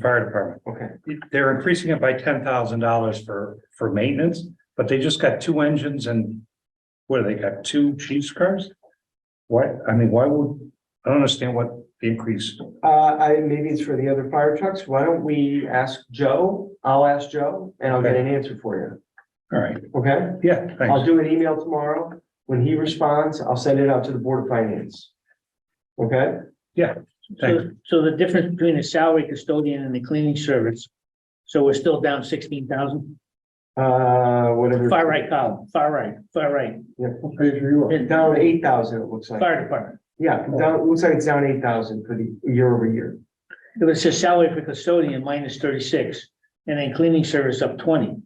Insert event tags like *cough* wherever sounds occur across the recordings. fire department. Okay. They're increasing it by ten thousand dollars for, for maintenance, but they just got two engines and what, they got two chief's cars? Why, I mean, why would, I don't understand what the increase, Uh, I, maybe it's for the other fire trucks. Why don't we ask Joe? I'll ask Joe and I'll get an answer for all right, you. Okay? yeah, I'll thanks. do an email tomorrow. When he responds, I'll send it out to the Board of Finance. Okay? Thanks. So, so the difference between the salary custodian and the cleaning service, so we're still down sixteen thousand? Uh, whatever. Far right column, far right, far right, It's Down eight thousand, it looks like. fire department. Yeah, down, it looks like it's down eight thousand for the year over year. It was just salary for custodian minus thirty-six, and then cleaning service up twenty.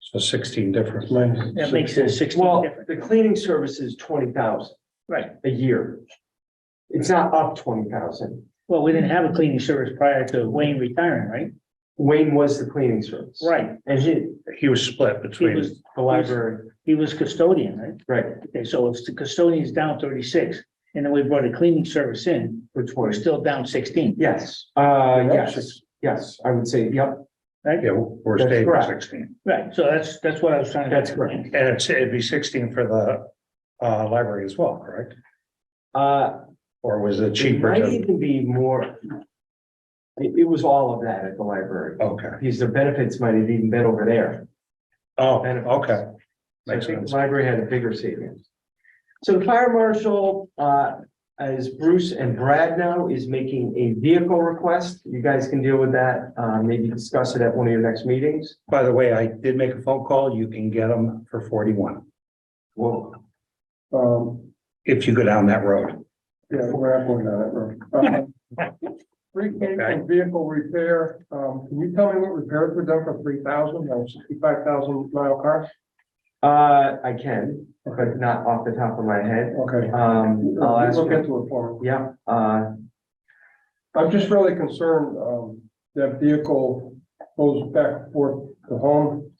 So sixteen difference. That makes it sixteen Well, different, the cleaning service is twenty thousand right? a year. It's not up twenty thousand. Well, we didn't have a cleaning service prior to Wayne retiring, right? Wayne was the cleaning service. Right, And he, He was split he between, was, the library, he was custodian, right? right, Okay, so if the custodian is down thirty-six, and then we brought a cleaning service in, for we're twenty. still down sixteen, Yes, uh, Yeah, yes, six. yes, I would say, yep, right? yeah, we're That's staying correct. at sixteen. Right, so that's, that's what I was trying to. That's correct. And it's, it'd be sixteen for the, uh, library as well, correct? uh, Or was it it cheaper might to, even be more. It, it was all of that at the library, okay, because the benefits might have even been over there. oh, Benefits. okay, So I Makes think sense. the library had a bigger savings. So the fire marshal, uh, as Bruce and Brad now, is making a vehicle request. You guys can deal with that, uh, maybe discuss it at one of your next meetings. By the way, I did make a phone call. You can get them for forty-one Well, Um, if you go down that road. yeah, we're not going down that road. Um, *laughs* Free came from vehicle repair, um, can you tell me what repairs were done for three thousand, or sixty-five thousand mile car? uh, I can, Okay, but not off the top of my head. okay. Um, I'll We'll ask, Look into it for me. yeah, uh, I'm just really concerned, um, that vehicle goes back and forth to home.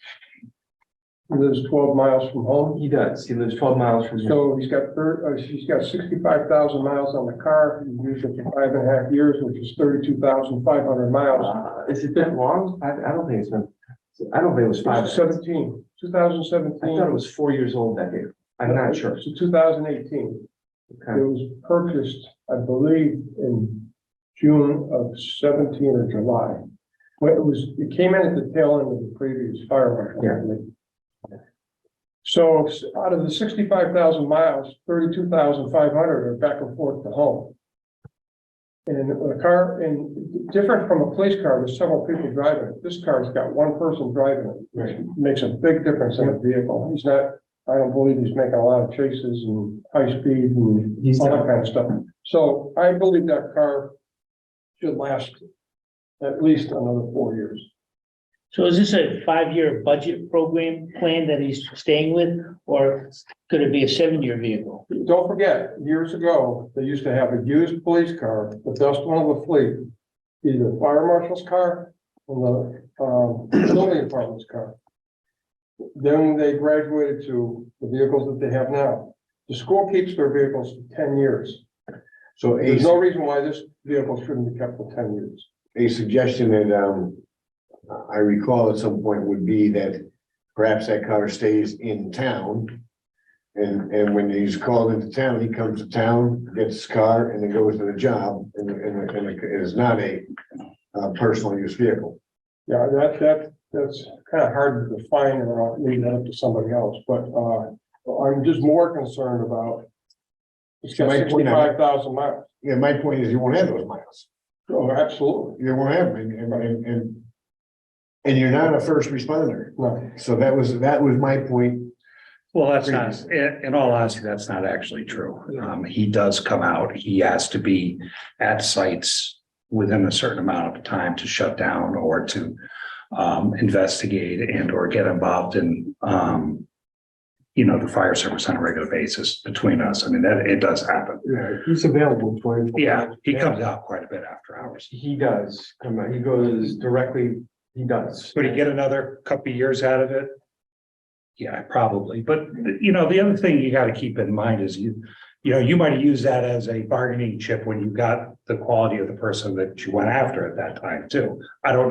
He Lives twelve miles from home, he does. He lives twelve miles from here. so he's got thir- uh, she's got sixty-five thousand miles on the car, he used it for five and a half years, which is thirty-two thousand five hundred miles. Uh, Has it been long? I, I don't think it's been, I don't think it was five. It's 17, 2017. I thought it was four years old that year. I'm not sure. It's two thousand eighteen. It Okay. was purchased, I believe, in June of seventeen or July. Well, it was, it came in at the tail end of the previous fire marshal. I Yeah. believe. So s- out of the sixty-five thousand miles, thirty-two thousand five hundred are back and forth to home. And a car, and different from a police car, there's several people driving it. This car's got one person driving it Right. makes a big difference in a vehicle. He's not, I don't believe he's making a lot of chases and high speed and He's all that not, kind of stuff. So I believe that car should last at least another four years. So is this a five-year budget program plan that he's staying with, or could it be a seven-year vehicle? Don't forget, years ago, they used to have a used police car, the best one of the fleet, either fire marshal's car or the, um, building department's car. Then they graduated to the vehicles that they have now. The school keeps their vehicles for ten years. So a, There's no reason why this vehicle shouldn't be kept for ten years. a suggestion that, um, I recall at some point would be that perhaps that car stays in town. And, and when he's called into town, he comes to town, gets his car and then goes to the job and, and, and it is not a, uh personal use vehicle. Yeah, that, that, that's kind of hard to define and I'll leave that up to somebody else, but, uh, I'm just more concerned about it's got Mike, you know- sixty-five thousand miles. Yeah, my point is you won't have those miles. Oh, absolutely. You won't have them and, and- and, and and you're not a first responder. No, So that was, that was my point. Well, that's not, in, in all honesty, that's not actually true. Um, he does come out. He has to be at sites within a certain amount of time to shut down or to um, investigate and or get involved in um, you know, the fire service on a regular basis between us. I mean, that, it does happen. Yeah, he's available twenty-four. Yeah, he comes out quite a bit after hours. he does come, out. he goes directly, he does. Would he get another couple of years out of it? Yeah, probably, but you know, the other thing you gotta keep in mind is you, you know, you might have used that as a bargaining chip when you got the quality of the person that you went after at that time too. I don't know.